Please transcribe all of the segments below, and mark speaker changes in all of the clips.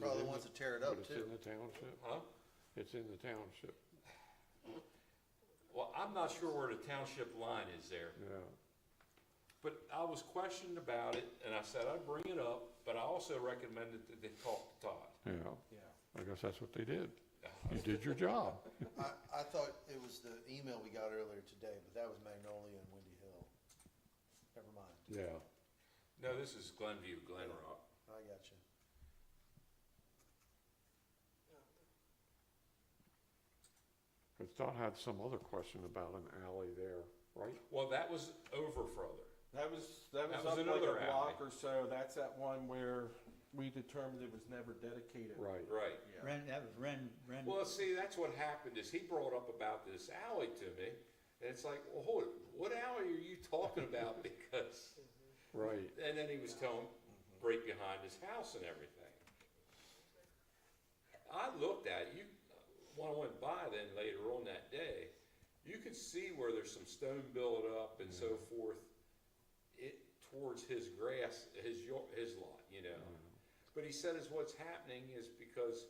Speaker 1: probably the
Speaker 2: in
Speaker 1: ones
Speaker 2: the-
Speaker 1: that tear it
Speaker 2: But
Speaker 1: up
Speaker 2: it's in
Speaker 1: too.
Speaker 2: the township,
Speaker 3: Huh?
Speaker 2: it's in the township,
Speaker 3: Well, I'm not sure where the township line is there,
Speaker 2: yeah.
Speaker 3: but I was questioned about it, and I said I'd bring it up, but I also recommended that they talk to Todd.
Speaker 2: Yeah, I guess that's what they did. You did your job.
Speaker 1: I, I thought it was the email we got earlier today, but that was Magnolia and Windy Hill. Never mind,
Speaker 2: Yeah.
Speaker 3: No, this is Glenview, Glen Rock.
Speaker 1: I got you.
Speaker 2: But Todd had some other question about an alley there, right?
Speaker 3: Well, that was over further.
Speaker 4: That was, that was
Speaker 3: That was
Speaker 4: up like
Speaker 3: another
Speaker 4: a block or so, that's that one where we determined it was never dedicated.
Speaker 2: Right.
Speaker 3: Right.
Speaker 4: Yeah.
Speaker 5: Ren, that was Ren, Ren.
Speaker 3: Well, see, that's what happened is he brought up about this alley to me, and it's like, well, hold, it, what alley are you talking about? Because,
Speaker 2: Right.
Speaker 3: and then he was telling right behind his house and everything. I looked at it, you, when I went by then later on that day, you could see where there's some stone built up and so forth. It towards his grass, his yard, his lot, you know.
Speaker 2: Mm.
Speaker 3: But he said is what's happening is because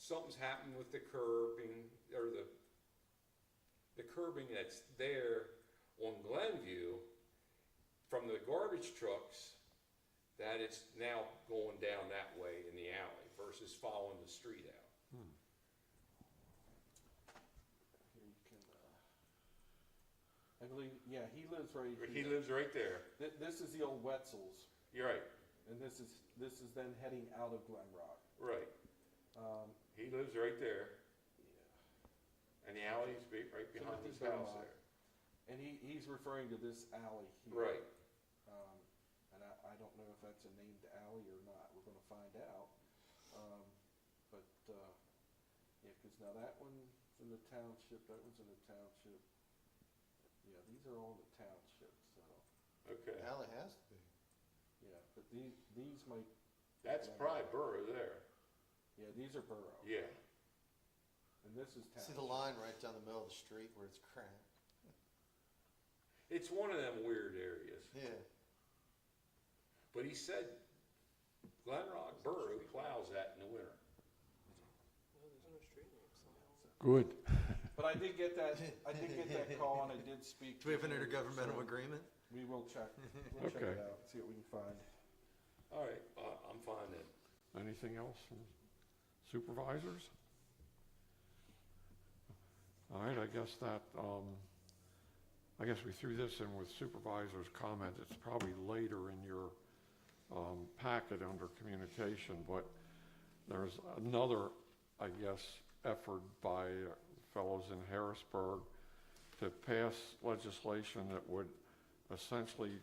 Speaker 3: something's happened with the curbing or the the curbing that's there on Glenview from the garbage trucks that it's now going down that way in the alley versus following the street out.
Speaker 4: Here you can, uh, I believe, yeah, he lives right
Speaker 3: He
Speaker 4: here.
Speaker 3: lives right there.
Speaker 4: Th- This is the old Wetzel's,
Speaker 3: You're right,
Speaker 4: and this is, this is then heading out of Glen Rock.
Speaker 3: right.
Speaker 4: Um,
Speaker 3: He lives right there
Speaker 4: yeah.
Speaker 3: and the alley's be right
Speaker 4: So
Speaker 3: behind
Speaker 4: this
Speaker 3: his
Speaker 4: is our
Speaker 3: house
Speaker 4: lot.
Speaker 3: there.
Speaker 4: And he, he's referring to this alley here.
Speaker 3: Right.
Speaker 4: Um, and I, I don't know if that's a named alley or not, we're gonna find out. Um, but, uh, yeah, cause now that one's in the township, that one's in the township. Yeah, these are all in the township, so,
Speaker 3: Okay,
Speaker 1: Alley has to be.
Speaker 4: yeah, but these, these might,
Speaker 3: that's probably Burrow there.
Speaker 4: yeah, these are borough.
Speaker 3: Yeah,
Speaker 4: And this is township.
Speaker 1: See the line right down the middle of the street where it's cramped?
Speaker 3: it's one of them weird areas.
Speaker 1: Yeah.
Speaker 3: But he said Glen Rock Borough plows that in the winter.
Speaker 6: No, there's no street names somehow.
Speaker 2: Good.
Speaker 4: But I did get that, I did get that call and I did speak.
Speaker 1: Do we have an
Speaker 4: to him,
Speaker 1: intergovernmental
Speaker 4: so
Speaker 1: agreement?
Speaker 4: We will check, we'll check it
Speaker 2: Okay.
Speaker 4: out, see what we can find.
Speaker 3: All right, uh, I'm fine then.
Speaker 2: Anything else from supervisors? All right, I guess that, um, I guess we threw this in with supervisors' comments. It's probably later in your, um, packet under communication, but there's another, I guess, effort by fellows in Harrisburg to pass legislation that would essentially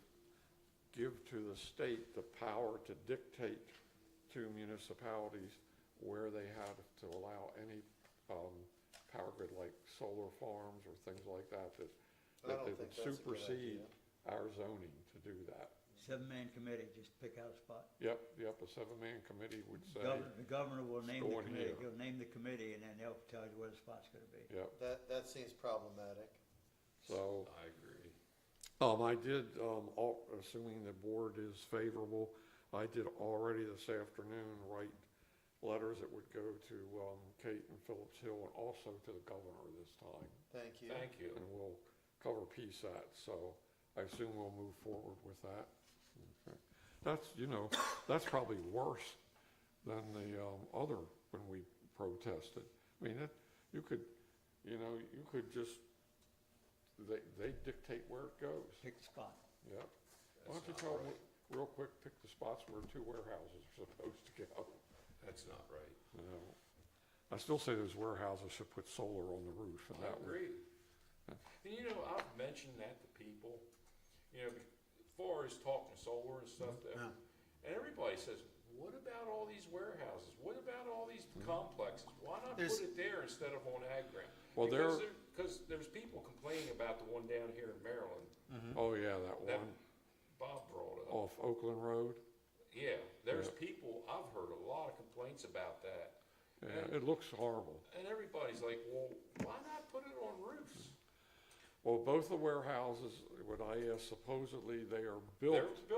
Speaker 2: give to the state the power to dictate to municipalities where they have to allow any um, power grid, like solar farms or things like that, that,
Speaker 1: I
Speaker 2: that
Speaker 1: don't
Speaker 2: they
Speaker 1: think
Speaker 2: would
Speaker 1: that's a good
Speaker 2: supersede
Speaker 1: idea.
Speaker 2: our zoning to do that.
Speaker 5: Seven-man committee, just pick out a spot.
Speaker 2: Yep, yep, a seven-man committee would say,
Speaker 5: Governor, the governor will name the
Speaker 2: going
Speaker 5: committee,
Speaker 2: here.
Speaker 5: he'll name the committee, and then they'll tell you where the spot's gonna be.
Speaker 2: yep,
Speaker 1: That, that seems problematic.
Speaker 2: so.
Speaker 3: I agree.
Speaker 2: Um, I did, um, al- assuming the board is favorable, I did already this afternoon write letters that would go to, um, Kate and Phillips Hill and also to the governor this time.
Speaker 1: Thank you.
Speaker 3: Thank you.
Speaker 2: And we'll cover PSAT, so I assume we'll move forward with that. Okay. That's, you know, that's probably worse than the, um, other, when we protested. I mean, that, you could, you know, you could just, they, they dictate where it goes.
Speaker 5: Pick the spot.
Speaker 2: Yep. Why
Speaker 3: That's
Speaker 2: don't you
Speaker 3: not
Speaker 2: tell
Speaker 3: right.
Speaker 2: them, real quick, pick the spots where two warehouses are supposed to go.
Speaker 3: That's not right.
Speaker 2: No. I still say those warehouses should put solar on the roof and
Speaker 3: I
Speaker 2: that would.
Speaker 3: agree. And you know, I've mentioned that to people, you know, as far as talking solar and stuff, that-
Speaker 5: Yeah.
Speaker 3: and everybody says, what about all these warehouses? What about all these complexes? Why not put
Speaker 1: There's-
Speaker 3: it there instead of on ag ground?
Speaker 2: Well,
Speaker 3: Because
Speaker 2: there-
Speaker 3: Because there's people complaining about the one down here in Maryland
Speaker 2: Oh, yeah, that
Speaker 3: that
Speaker 2: one
Speaker 3: Bob brought up.
Speaker 2: off Oakland Road.
Speaker 3: Yeah, there's
Speaker 2: Yeah.
Speaker 3: people, I've heard a lot of complaints about that.
Speaker 2: Yeah, it looks horrible.
Speaker 3: And everybody's like, well, why not put it on roofs?
Speaker 2: Well, both the warehouses, what I asked, supposedly they are
Speaker 3: They're
Speaker 2: built